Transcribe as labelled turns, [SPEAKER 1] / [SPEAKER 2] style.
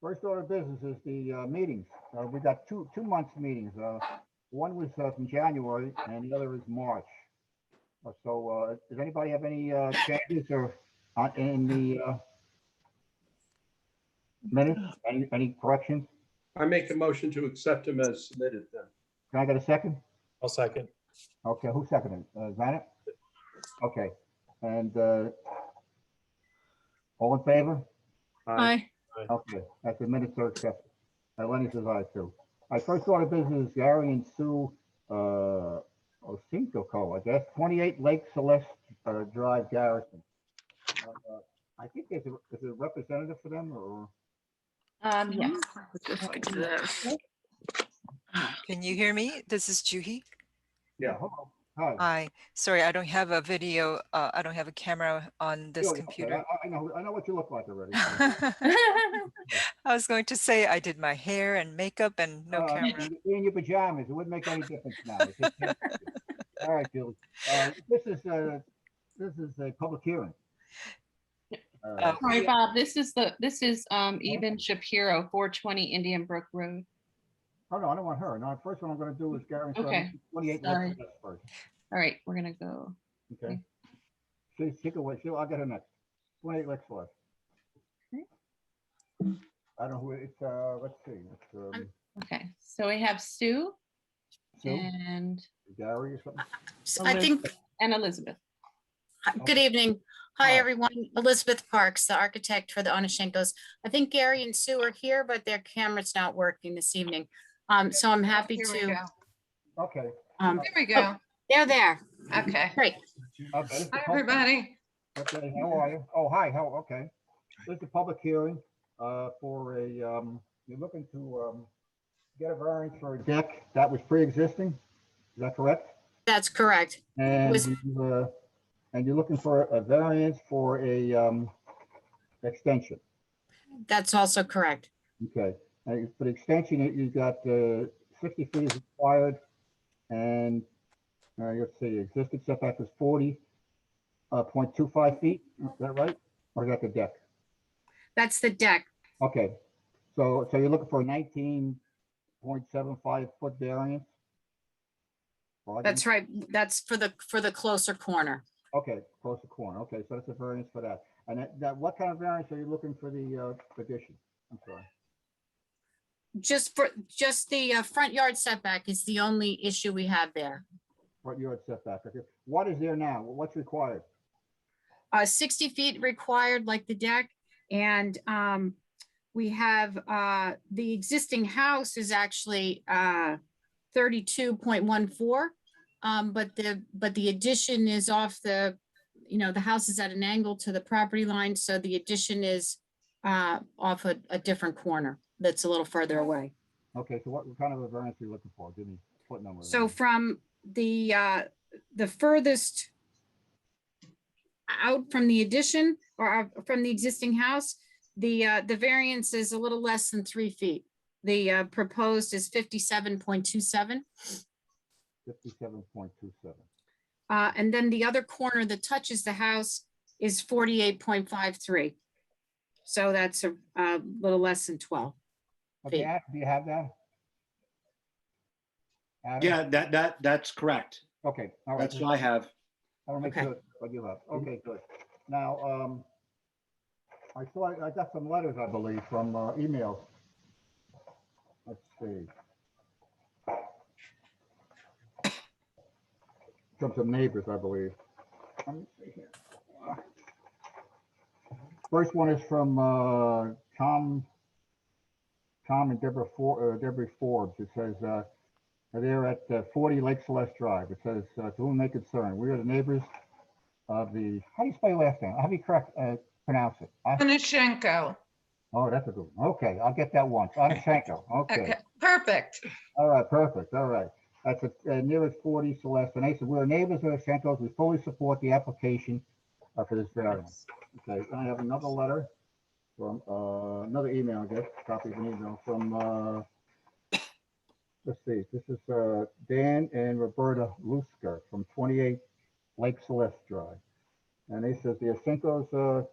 [SPEAKER 1] First order of business is the uh, meetings. Uh, We got two, two months' meetings. Uh, One was uh, from January and the other is March. Uh, So uh, does anybody have any uh, changes or uh, in the uh, minutes? Any, any corrections?
[SPEAKER 2] I make a motion to accept them as submitted then.
[SPEAKER 1] Can I get a second?
[SPEAKER 3] I'll second.
[SPEAKER 1] Okay, who seconded? Uh, Zanet? Okay, and uh, all in favor?
[SPEAKER 4] Aye.
[SPEAKER 1] Okay, that's the minutes are accepted. Uh, Lenny says aye too. My first order of business is Gary and Sue, uh, Co. I guess, twenty-eight Lake Celeste, uh, Drive Garrison. Uh, uh, I think there's a, is there a representative for them or,
[SPEAKER 4] Um, yes.
[SPEAKER 5] Can you hear me? This is Juhi.
[SPEAKER 2] Yeah.
[SPEAKER 1] hello, Uh, hi.
[SPEAKER 5] Hi, sorry, I don't have a video, uh, I don't have a camera on
[SPEAKER 1] Yeah,
[SPEAKER 5] this
[SPEAKER 1] okay,
[SPEAKER 5] computer.
[SPEAKER 1] I, I know, I know what you look like already. Uh,
[SPEAKER 5] I was going to say I did my hair and makeup and no
[SPEAKER 1] Uh,
[SPEAKER 5] camera.
[SPEAKER 1] you'd be In your pajamas, it wouldn't make any difference now. It's just- All right, Julie, uh, this is, uh, this is a public hearing. Uh,
[SPEAKER 5] Oh,
[SPEAKER 4] Sorry, Bob, this is the, this is, um, Eben Shapiro, four twenty Indian Brook Road.
[SPEAKER 1] Oh, no, I don't want her. No, first one I'm gonna do is Gary. Sutton,
[SPEAKER 4] Okay,
[SPEAKER 1] 28
[SPEAKER 4] sorry.
[SPEAKER 1] Lexington first,
[SPEAKER 4] All right, we're gonna go.
[SPEAKER 1] okay? She,
[SPEAKER 4] Okay.
[SPEAKER 1] she can wait. She'll, I'll get her next. Twenty-eight Lexington.
[SPEAKER 4] Okay.
[SPEAKER 1] I don't know who, it's, uh, let's see, it's, um,
[SPEAKER 4] Okay, so we have Sue
[SPEAKER 1] Sue,
[SPEAKER 4] and,
[SPEAKER 1] Gary or something.
[SPEAKER 6] So I think,
[SPEAKER 4] and Elizabeth.
[SPEAKER 6] good evening.
[SPEAKER 1] Hi.
[SPEAKER 6] Hi, everyone. Elizabeth Parks, the architect for the Onishenkos. I think Gary and Sue are here, but their camera's not working this evening. Um, so I'm happy to,
[SPEAKER 1] Okay.
[SPEAKER 6] um,
[SPEAKER 7] There we go.
[SPEAKER 6] they're there.
[SPEAKER 4] Oh.
[SPEAKER 7] Okay.
[SPEAKER 6] Great.
[SPEAKER 1] okay, this is Uh, the
[SPEAKER 7] Hi,
[SPEAKER 1] public-
[SPEAKER 7] everybody.
[SPEAKER 1] Okay, how are you? Oh, hi, how, okay. This is a public hearing, uh, for a, um, you're looking to, um, get a variance for a deck that was pre-existing. Is that correct?
[SPEAKER 6] That's correct.
[SPEAKER 1] And,
[SPEAKER 6] Was-
[SPEAKER 1] you, uh, and you're looking for a variance for a, um, extension,
[SPEAKER 6] That's also correct.
[SPEAKER 1] okay? And for the extension, you- you've got, uh, sixty feet is required, and, uh, let's see, existing setback is forty, uh, point two five feet, is that right? Or is that the deck?
[SPEAKER 6] That's the deck.
[SPEAKER 1] Okay, so, so you're looking for a nineteen point seven five foot variance? Well, I
[SPEAKER 6] That's
[SPEAKER 1] didn't-
[SPEAKER 6] right. That's for the, for the closer corner.
[SPEAKER 1] Okay, close the corner. Okay, so that's a variance for that. And that, that, what kind of variance are you looking for the uh, addition? I'm sorry.
[SPEAKER 6] Just for, just the uh, front yard setback is the only issue we have there.
[SPEAKER 1] Front yard setback. okay. What is there now? What's required?
[SPEAKER 6] uh, sixty feet required like the deck. And, um, we have, uh, the existing house is actually, uh, thirty-two point one four. Um, but the, but the addition is off the, you know, the house is at an angle to the property line, so the addition is, uh, off a, a different corner that's a little further away.
[SPEAKER 1] Okay, so what kind of a variance are you looking for? Give me foot number.
[SPEAKER 6] So from the, uh, the furthest out from the addition or out from the existing house, the, uh, the variance is a little less than three feet. The, uh, proposed is fifty-seven point two seven.
[SPEAKER 1] Fifty-seven point two seven.
[SPEAKER 6] Uh, and then the other corner that touches the house is forty-eight point five three. So that's a, a little less than twelve.
[SPEAKER 1] Okay,
[SPEAKER 6] Feet.
[SPEAKER 1] Ad- do you have that? Adam?
[SPEAKER 8] Yeah, that, that, that's correct.
[SPEAKER 1] Okay, all right.
[SPEAKER 8] That's what I have.
[SPEAKER 1] I want to make
[SPEAKER 6] Okay.
[SPEAKER 1] sure what you have. Okay, good. Now, um, I saw, I got some letters, I believe, from uh, emails. Let's see. From some neighbors, I believe. Let me see here. First one is from, uh, Tom, Tom and Deborah For, uh, Deborah Forbes. It says, uh, uh, They're at uh, 40 Lake Celeste Drive. It says, uh, to whom they concern, we are the neighbors of the, how do you spell your last name? How do you correct, uh, pronounce it? I-
[SPEAKER 7] Anashenko.
[SPEAKER 1] Oh, that's a good one. Okay, I'll get that once. Onashenko. Okay.
[SPEAKER 7] Okay, perfect.
[SPEAKER 1] All right, perfect. All right. That's the uh, nearest 40 Celeste. And they said, we're neighbors of the Schenkels. We fully support the application uh, for this variance. Okay, I have another letter from, uh, another email, I guess, copy of an email from, uh, let's see, this is, uh, Dan and Roberta Lusker from 28 Lake Celeste Drive. And they says the Schenkels, uh,